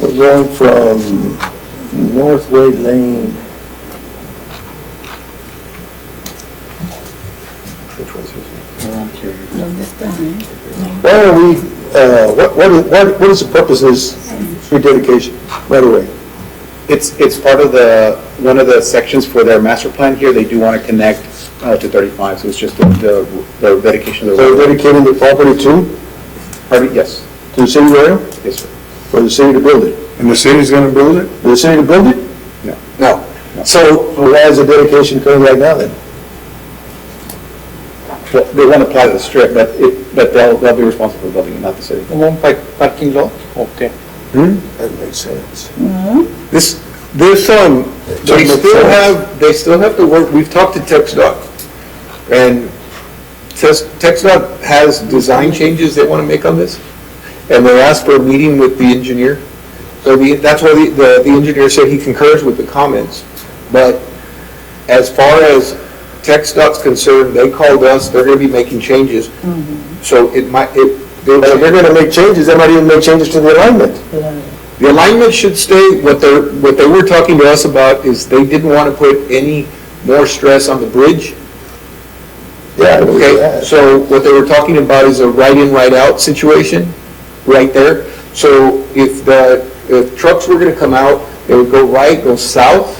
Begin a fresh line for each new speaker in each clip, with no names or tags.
We're going from Northway Lane. Which one's Why are we, uh, what, what is- what what is the purpose of this rededication, right away?
It's, it's part of the, one of the sections for their master plan here, they do want to connect uh, to 35, so it's just the- the the dedication of the
So
road.
dedicating the property to,
Pardon? Yes,
to the city of Laredo,
yes, sir.
for the city to build it?
And the city's gonna build it?
For the city to build it?
No.
No. So why is the dedication coming right now then?
Well, They want to apply to the strip, but it, but they'll, they'll be responsible for building it, not the city.
parking lot, okay.
That makes sense.
Hmm? This, this, um, they
Doesn't look
still
fair.
have, they still have to work, we've talked to Tex Dot. And Tex, Tex Dot has design changes they wanna make on this. And they asked for a meeting with the engineer. So the, that's why the, the the engineer said he concurs with the comments. But as far as Tex Dot's concerned, they called us, they're gonna be making changes. So it might, it, they're
But if they're
gonna
gonna make changes, they might even make changes to the alignment.
The alignment should stay, what they're, what they were talking to us about is they didn't want to put any more stress on the bridge.
Yeah.
Okay, so what they were talking about is a right-in, right-out situation, right there. So if the, if trucks were going to come out, they would go right, go south,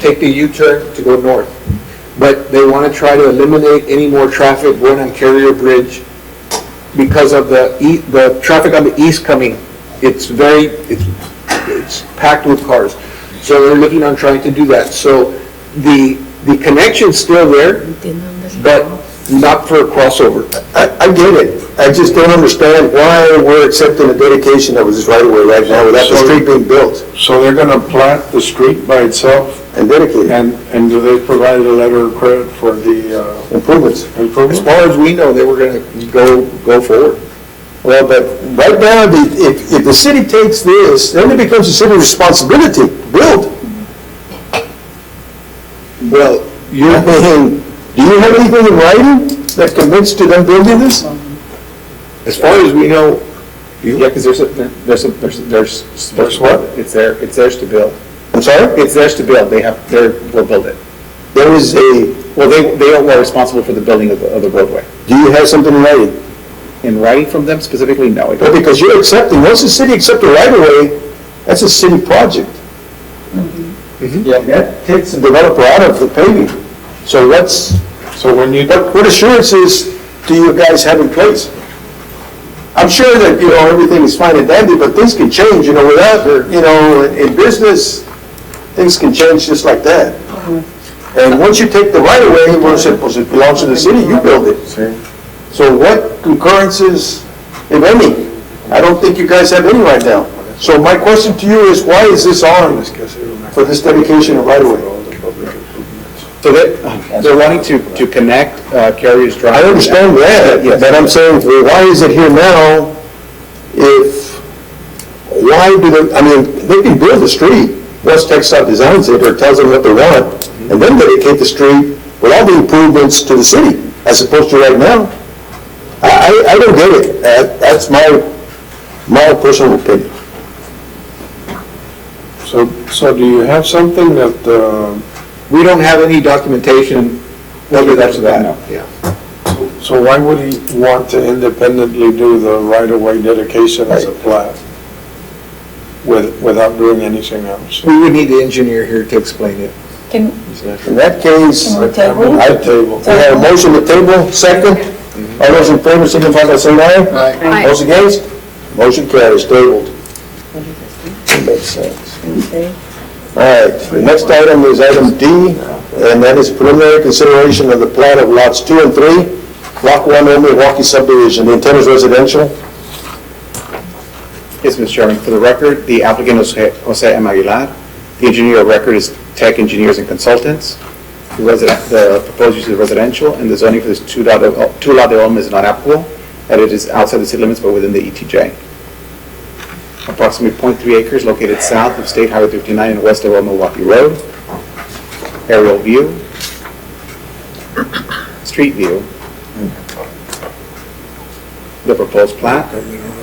take the U-turn to go north. But they want to try to eliminate any more traffic going on Carrier Bridge because of the, e- the traffic on the east coming. It's very, it's it's packed with cars. So they're looking on trying to do that. So the, the connection's still there, but not for a crossover.
I, I get it. I just don't understand why we're accepting a dedication that was just right away right now without the street being built
So they're going to plant the street by itself,
and dedicated
and, and do they provide a letter of credit for the uh,
improvements.
As
improvement?
far as we know, they were gonna go, go forward.
Well, but right now, the, if, if the city takes this, then it becomes a city responsibility, build. Well, you're, do you have anything in writing that convinced you them building this?
As far as we know,
Yeah, because there's, a- there's, a- there's, there's.
There's what?
It's there, it's theirs to build.
I'm sorry?
It's theirs to build, they have, they're, will build it.
There is a,
Well, they, they are responsible for the building of the, of the roadway.
do you have something in writing?
In writing from them specifically, no, I
Well,
don't.
because you're accepting, once the city accepts a right-of-way, that's a city project.
Mm-hmm.
Yeah, that takes the developer out of the paving. So what's,
So when you,
what what assurances do you guys have in place? I'm sure that, you know, everything is fine and dandy, but things can change, you know, without, you know, in- in business, things can change just like that.
Mm-hmm.
And once you take the right-of-way, once it it belongs to the city, you build it. So what concurrences, if any? I don't think you guys have any right now. So my question to you is, why is this on for this dedication of right-of-way?
So they, they're wanting to, to connect uh, Carrier's Drive.
I understand that,
Yes.
but I'm saying, well, why is it here now if, why do they, I mean, they can build the street, once Texas designs it or tells them what they want, and then dedicate the street with all the improvements to the city, as opposed to right now. I, I, I don't get it. That- That's my, my personal opinion.
so, so do you have something that, uh,
we don't have any documentation
Well,
whether
that's
that's
that,
that.
no.
Yeah.
so why would he want to independently do the right-of-way dedication as a plat with, without doing anything else?
We would need the engineer here to explain it.
Can,
In that case,
can we
we
table?
At the table.
have a motion to table, second. All those in favor, signify by saying aye.
Aye.
Those against? Motion carries, tabled. Makes sense.
Okay.
All right, the next item is item D, and that is preliminary consideration of the plan of lots two and three, block one in Milwaukee subdivision, the intent is residential.
Yes, Mr. Chairman, for the record, the applicant is Jose- Jose M. Aguilar. The engineer of record is Tech Engineers and Consultants. The resi- the proposed use is residential, and the zoning for this two-lot development is not applicable, and it is outside the city limits but within the ETJ. Approximately .3 acres located south of State Highway 59 and west of Old Milwaukee Road. Aerial view. Street view. The proposed plat.